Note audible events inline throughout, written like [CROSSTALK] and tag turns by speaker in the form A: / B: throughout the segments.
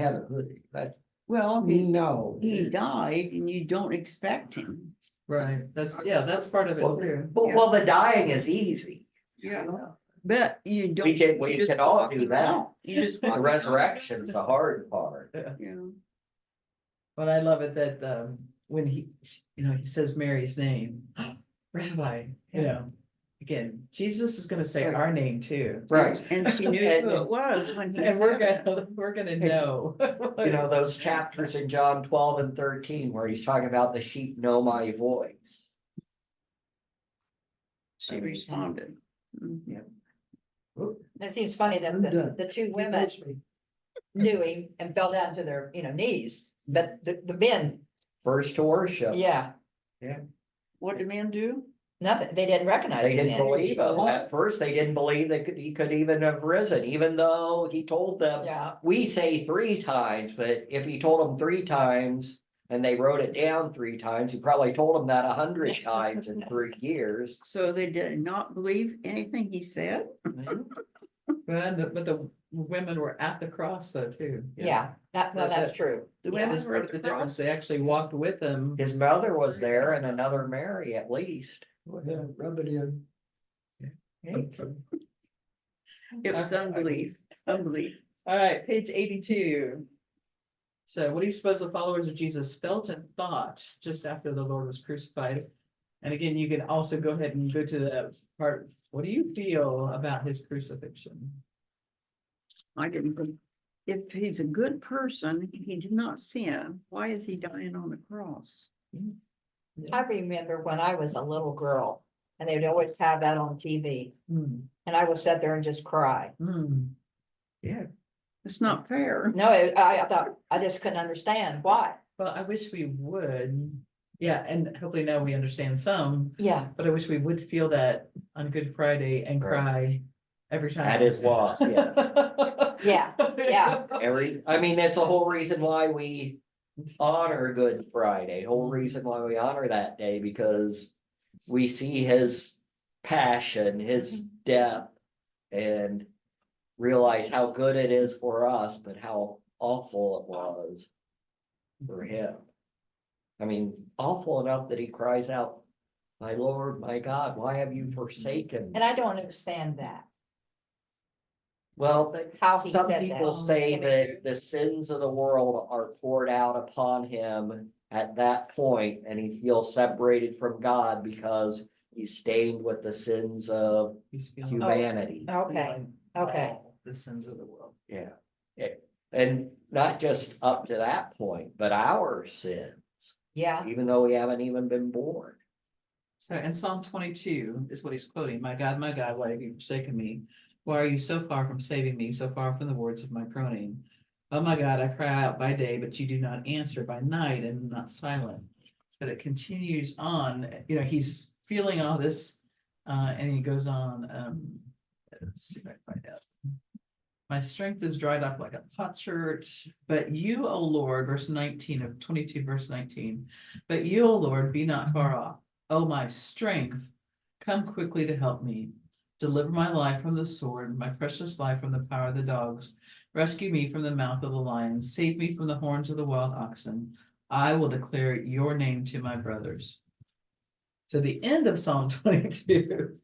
A: had a hoodie, that's,
B: Well, he,
A: no.
B: he died and you don't expect him.
C: Right, that's, yeah, that's part of it
D: Well,
C: too.
D: But, well, the dying is easy.
B: Yeah. But you don't.
D: can- we
B: you just
D: can all
B: walk
D: do
B: him
D: that.
B: out. You just. walk
D: The
B: him out.
D: resurrection's the hard part.
B: Yeah.
C: But I love it that, um, when he, you know, he says Mary's name, [GASPS] Rabbi, you know. Again, Jesus is gonna say our name too.
D: Right.
B: [LAUGHS] And she knew
D: And-
B: who it was when he
C: [LAUGHS] And we're
B: said it.
C: gonna,
D: [LAUGHS]
C: we're gonna know. [LAUGHS]
D: You know, those chapters in John twelve and thirteen where he's talking about the sheep know my voice.
B: She responded. Mhm.
E: It seems funny that
A: I'm
E: the,
A: done.
E: the two women knew him and fell down to their, you know, knees, but the, the men,
D: First to worship.
E: yeah,
B: What did men do?
E: nothing, they didn't recognize
D: They
E: him.
D: didn't
E: then.
D: believe him. At first, they didn't believe that could- he could even have risen, even though he told them,
E: Yeah,
D: we say three times, but if he told them three times and they wrote it down three times, he probably told them that a hundred times in three years.
B: So they did not believe anything he said?
C: But the, but the women were at the cross though too.
E: yeah, that, well,
C: But
E: that's
C: that-
E: true.
B: The
E: Yeah.
B: women were
C: Part
B: at
C: of the
B: the cross?
C: difference, they actually walked with him.
D: His mother was there and another Mary at least.
A: Go ahead, rub it in.
B: It was unbelief, unbelief.
C: All right, page eighty-two. So what do you suppose the followers of Jesus felt and thought just after the Lord was crucified? And again, you can also go ahead and go to the part, what do you feel about his crucifixion?
B: I didn't think, if he's a good person, he did not sin, why is he dying on the cross?
E: I remember when I was a little girl and they'd always have that on TV
C: Hmm,
E: and I would sit there and just cry.
C: hmm.
B: It's not fair.
E: No, I, I thought, I just couldn't understand why.
C: Well, I wish we would, yeah, and hopefully now we understand some,
E: Yeah,
C: but I wish we would feel that on Good Friday and cry every time.
D: At his loss, yes.
C: [LAUGHS]
E: yeah, yeah.
D: Every, I mean, that's the whole reason why we honor Good Friday, whole reason why we honor that day, because we see his passion,
E: Mm-hmm.
D: his death, and realize how good it is for us, but how awful it was for him. I mean, awful enough that he cries out, my Lord, my God, why have you forsaken? me?"
E: Mm-hmm. And I don't understand that,
D: Well,
E: how he said
D: Some
E: that.
D: people say that the sins of the world are poured out upon him at that point, and he feels separated from God because he's stained with the sins of humanity.
E: Okay, okay.
C: The sins of the world.
D: Yeah. It- And not just up to that point, but our sin,
E: yeah,
D: even though we haven't even been born.
C: So in Psalm twenty-two is what he's quoting, my God, my God, why have you forsaken me? Why are you so far from saving me, so far from the words of my groaning? Oh my God, I cry out by day, but you do not answer by night and not silent. But it continues on, you know, he's feeling all this, uh, and he goes on, um. Let's see if I can find out. My strength is dried up like a potsherd, but you, O Lord, verse nineteen of twenty-two, verse nineteen. But you, O Lord, be not far off. O Oh, my strength, come quickly to help me. Deliver my life from the sword, my precious life from the power of the dogs. Rescue me from the mouth of the lion, save me from the horns of the wild oxen. I will declare your name to my brothers. So the end of Psalm [LAUGHS] twenty-two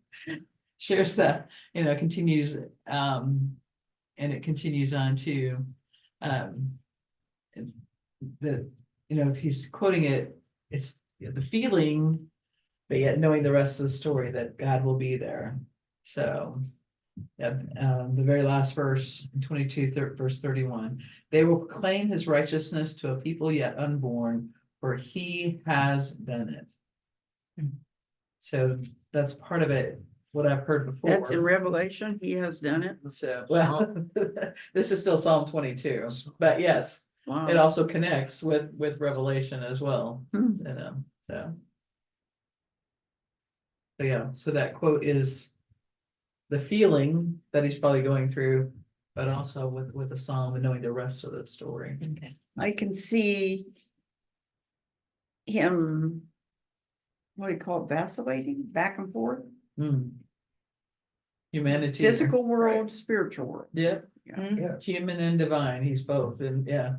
C: shares that, you know, continues, um, and it continues on to, um, the, you know, if he's quoting it, it's the feeling but yet knowing the rest of the story that God will be there. So, yep, um, the very last verse, 22, thir- verse 31, they will proclaim his righteousness to a people yet unborn, for he has done it. So that's part of it, what I've heard before.
B: That's in Revelation, he has done it.
C: So, [LAUGHS] well, this is still Psalm 22, but yes, it
B: Wow.
C: also connects with, with Revelation as well
B: Hmm.
C: you know, so. So yeah, so that quote is the feeling that he's probably going through, but also with, with the psalm and knowing the rest of the story.
B: I can see him, what do you call it, vacillating back and forth,
C: Hmm. Humanity.
B: physical world, spiritual world.
C: Yeah,
B: Yeah.
A: yeah.
E: Mm-hmm.
C: human and divine, he's both, and yeah.